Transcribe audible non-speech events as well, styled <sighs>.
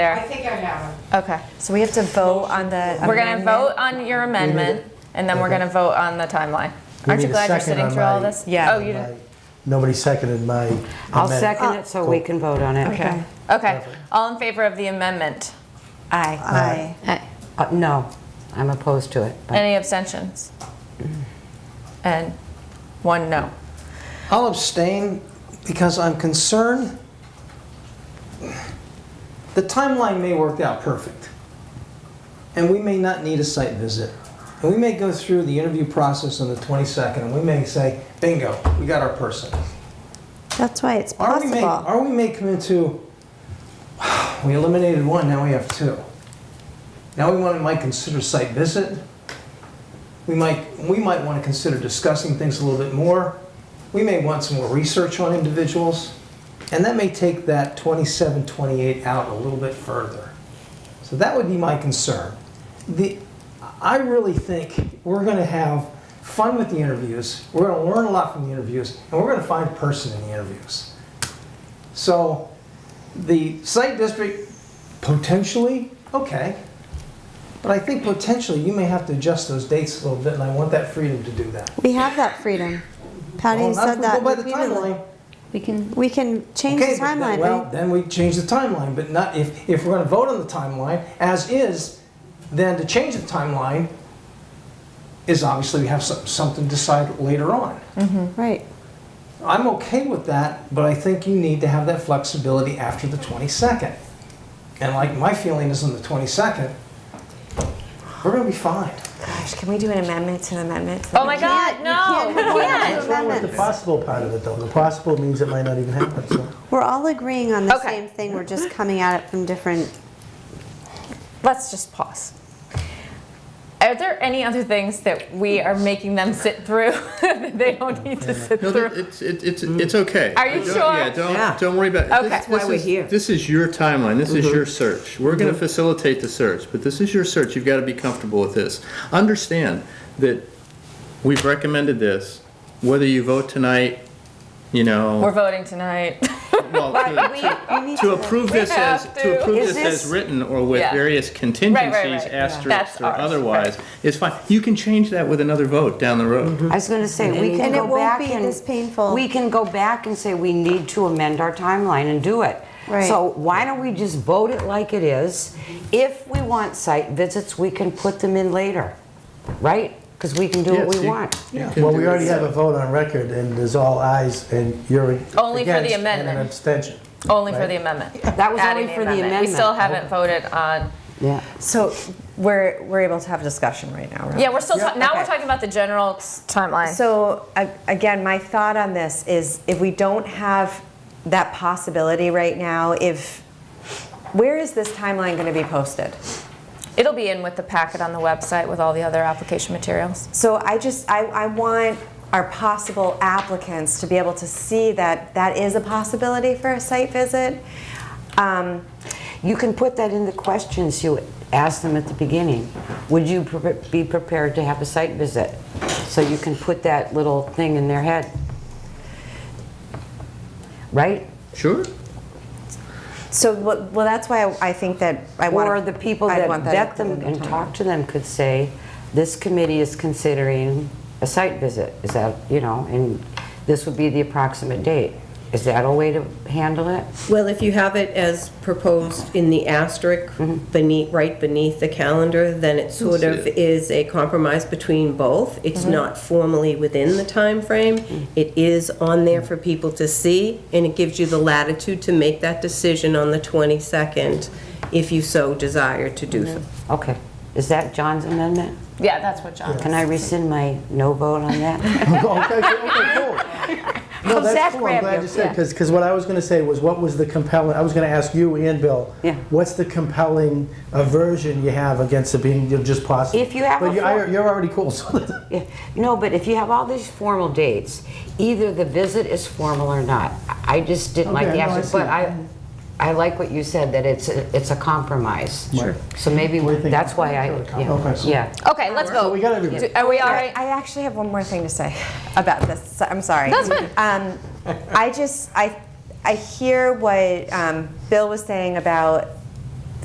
there. I think I have it. Okay. So we have to vote on the. We're gonna amendment? vote on your amendment, and then we're Mhm. Okay. gonna vote on the timeline. We Aren't you need a glad you're second sitting on through all my- this? Yeah. Oh, you My- did. Nobody seconded my I'll amendment. second it so we can vote on it. Okay. Okay. All in favor of the amendment? Aye. Aye. Uh, No, I'm opposed to it. but- Any abstentions? And one no. I'll abstain because I'm concerned. The timeline may work out perfect. And we may not need a site visit. And we may go through the interview process on the 22nd and we may say, bingo, we got our person. That's why it's Are we may, possible. are we may come into, <sighs> we eliminated one, now we have two. Now we want, might consider site visit. We might, we might want to consider discussing things a little bit more. We may want some more research on individuals. And that may take that 27, 28 out a little bit further. So that would be my concern. The, I really think we're going to have fun with the interviews. We're going to learn a lot from the interviews, and we're going to find person in the interviews. So the site district, potentially, okay. But I think potentially you may have to adjust those dates a little bit, and I want that freedom to do that. We have that freedom. Patty Well, not if said we that Go by the repeatedly. timeline. We can, We can change Okay, the but then- timeline, Well, right? then we change the timeline, but not, if, if we're gonna vote on the timeline as is, then to change the timeline is obviously we have some- something to decide later on. Right. I'm okay with that, but I think you need to have that flexibility after the 22nd. And like, my feeling is on the 22nd, we're gonna be fine. Gosh, can we do an amendment to an amendment? Oh my God, no, You we can't can't. have Well, with two the amendments. possible part of it, though, the possible means it might not even happen, so. We're all agreeing on the Okay. same thing. We're just coming at it from different. Let's just pause. Are there any other things that we are making them sit through <laughs> that they don't need to sit No, that- through? it's, it- it's, it's okay. Are you Don't- sure? Yeah, Mm. Yeah. don't, don't worry about it. Okay. This- That's why this we're is- here. Mm-hmm. This is your timeline, this is your search. We're gonna facilitate the search, but this is your search, you've gotta be comfortable with this. Understand that we've recommended this, whether you vote tonight, you We're <laughs> know, voting tonight. <laughs> well, to- we need to approve this as, have to. to approve Is this as this- written or with Yeah. various contingencies, right. asterisks, That's or ours, right. otherwise, it's fine. You can change that with another vote down the road. I was going to say, we can And it go won't back be and. this painful. We can go back and say we need to amend our timeline and do it. Right. So why don't we just vote it like it is? If we want site visits, we can put them in later, right? Because we can do what Yes, we you- want. you can Well, do we it. already have a vote on record, and there's all ayes, and you're against. Only for the And an amendment. <laughs> abstention. <laughs> Only for Right. the amendment. That was Adding only for the amendment. We still haven't voted on, Yeah. So we're, we're able to have a discussion right now, right? yeah, we're still, ta- now we're Okay. talking about the general s- timeline. So a- again, my thought on this is if we don't have that possibility right now, if, where is this timeline gonna be posted? It'll be in with the packet on the website with all the other application materials. So I just, I, I want our possible applicants to be able to see that that is a possibility for a site visit. Um, You can put that in the questions you ask them at the beginning. Would you pre- be prepared to have a site visit? So you can put that little thing in their head. Right? Sure. So, well, well, that's why I- I think that I want. Or the people that vet them and talk to them could say, this committee is considering a site visit. Is that, you know, and this would be the approximate date. Is that a way to handle it? Well, if you have it as proposed in the asterisk beneath, right beneath the calendar, then it sort of is a compromise between both. It's not formally within the time frame. It is on there for people to see, and it gives you the latitude to make that decision on the 22nd if you so desire to do so. Okay. Is that John's amendment? Yeah, that's what John. Can I rescind my no vote on that? Okay, okay, cool. No, Come, Zach, that's cool, I'm grab glad you. you said, because, what I was gonna say was, what was the compelling, I was gonna ask you and Bill. Yeah. What's the compelling aversion you have against it being just possible? If you have But a you- I- full- You're already cool, so. Yeah, No, but if you have all these formal dates, either the visit is formal or not. I I just didn't like Okay, the no, I answer, see. but I, I like what you said, that it's, a- it's a compromise. Sure. So maybe, What do you think? that's why I, Okay, yeah, so- yeah. Okay, let's So we vote. got everybody. Do- Are we all I, right? I actually have one more thing to say about this. So- I'm sorry. That's fine. Um, I just, I, I hear what um, Bill was saying about